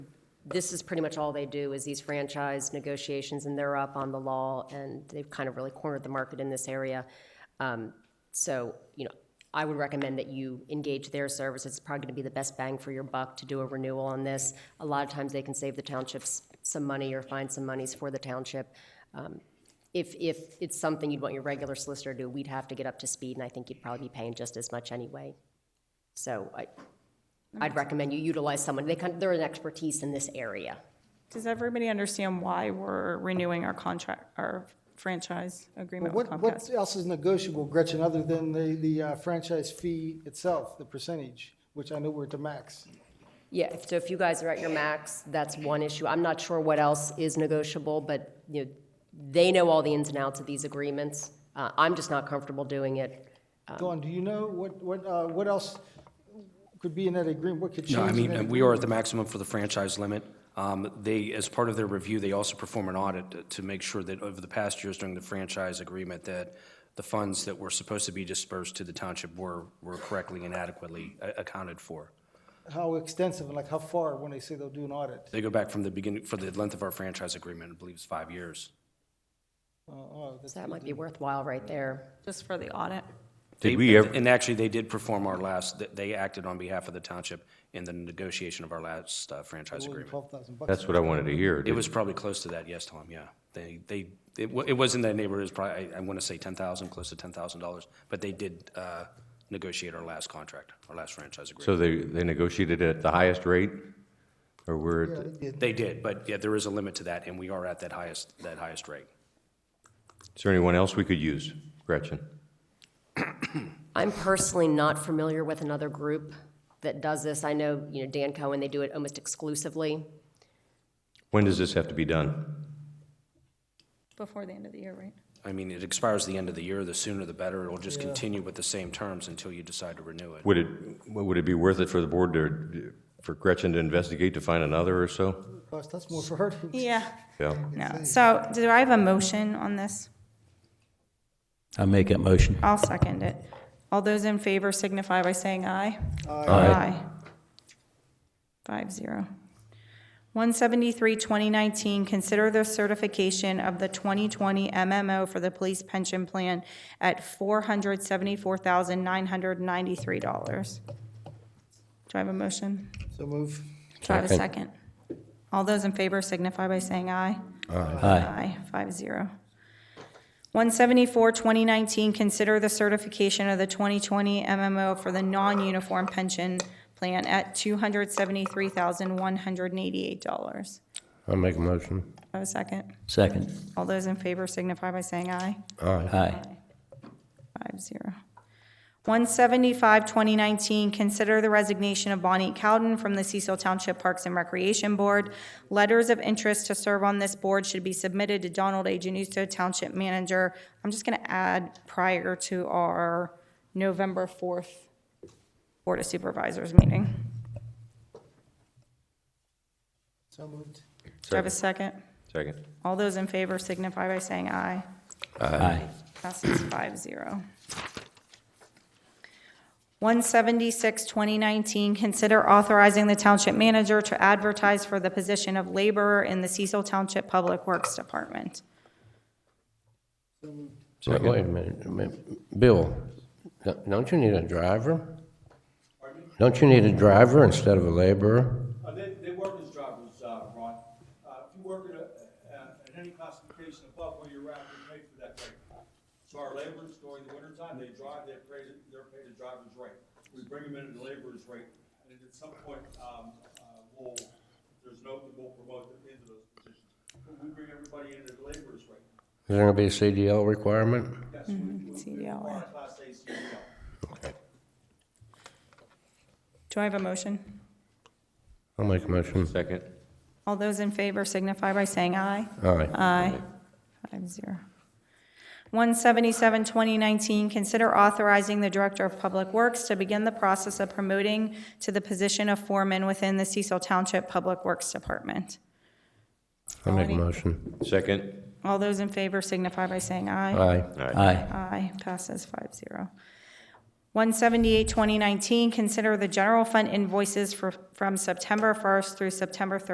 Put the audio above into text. this is pretty much all they do is these franchise negotiations, and they're up on the law, and they've kind of really cornered the market in this area. Um, So, you know, I would recommend that you engage their service. It's probably going to be the best bang for your buck to do a renewal on this. A lot of times, they can save the townships some money or find some monies for the township. Um, If, if it's something you'd want your regular solicitor to do, we'd have to get up to speed, and I think you'd probably be paying just as much anyway. So I, I'd recommend you utilize someone, they kind, they're an expertise in this area. Does everybody understand why we're renewing our contract, our franchise agreement with What, what Comcast? else is negotiable, Gretchen, other than the, the uh, franchise fee itself, the percentage, which I know we're at the max? Yeah, so if you guys are at your max, that's one issue. I'm not sure what else is negotiable, but, you know, they know all the ins and outs of these agreements. Uh, I'm just not comfortable doing it. Dawn, do you know what, what, uh, what else could be in that agreement? What could change? No, I in mean, that and we are at the maximum for the franchise limit. Um, They, as part of their review, they also perform an audit to make sure that over the past years during the franchise agreement, that the funds that were supposed to be dispersed to the township were, were correctly and adequately a- accounted for. agreement? How extensive and like how far when they say they'll do an audit? They go back from the beginning, for the length of our franchise agreement, I believe it's five years. Uh, oh, that's- So that might be worthwhile right there. Just for the audit? Did They- we ever, And actually, they did perform our last, th- they acted on behalf of the township in the negotiation of our last uh, franchise more than agreement. 12,000 bucks. that's what I wanted to hear. It Did- was probably close to that, yes, Tom, yeah. They, they, it wa- it was in that neighborhood, it was probably, I- I want to say 10,000, close to $10,000, but they did uh, negotiate our last contract, our last franchise agreement. So they, they negotiated at the highest rate? Or we're, at the- They did, but yeah, there is a limit to that, and we are at that highest, that highest rate. is there anyone else we could use, Gretchen? I'm personally not familiar with another group that does this. I know, you know, Dan Cohen, they do it almost exclusively. When does this have to be done? Before the end of the year, right? I mean, it expires the end of the year, the sooner the better, it'll just continue with the same terms until you decide to renew it. Would it, would it be worth it for the board to, for Gretchen to investigate to find another or so? Gosh, That's more for her. to- Yeah, Yeah. no. So do I have a motion on this? I make that motion. I'll second it. All those in favor signify by saying aye. Five zero. One seventy-three, twenty nineteen, consider the certification of the twenty twenty MMO for the police pension plan at four hundred seventy-four thousand nine hundred ninety-three dollars. Do I have a motion? So move. Do I have a Second. second? All those in favor signify by saying aye. Aye. Aye, five zero. One seventy-four, twenty nineteen, consider the certification of the twenty twenty MMO for the non-uniform pension plan at two hundred seventy-three thousand, one hundred and eighty-eight dollars. I'll make a motion. Have a second? Second. All those in favor signify by saying aye. Aye. Five zero. One seventy-five, twenty nineteen, consider the resignation of Bonnie Cowden from the Cecil Township Parks and Recreation Board. Letters of interest to serve on this board should be submitted to Donald A. Januso, Township Manager. I'm just gonna add prior to our November fourth Board of Supervisors meeting. So moved. Do I have a second? Second. All those in favor signify by saying aye. Aye. Passes five zero. One seventy-six, twenty nineteen, consider authorizing the township manager to advertise for the position of laborer in the Cecil Township Public Works Department. Wait wait a minute, a minute. Bill, don't- don't you need a driver? Don't you need a driver instead of a laborer? Uh, They, they work as drivers, uh, Ron. Uh, If you work at, a- uh, at any classification above where you're at, you're paid for that rate. So our laborers during the wintertime, they drive, they're paid, they're paid a driver's rate. We bring them in at the laborer's rate, and at some point, um, uh, we'll, if there's no, we'll promote them into those positions. But we bring everybody in at the laborer's rate. Is there gonna be a CDL requirement? Yes, we, we- we CDL. require a E class A CDL. Do I have a motion? I'll make a motion. Second. All those in favor signify by saying aye. Aye. Aye. Five zero. One seventy-seven, twenty nineteen, consider authorizing the Director of Public Works to begin the process of promoting to the position of foreman within the Cecil Township Public Works Department. I'll make a motion. Second. All those in favor signify by saying aye. Aye. Aye. Aye, passes five zero. One seventy-eight, twenty nineteen, consider the general fund invoices for, from September first through September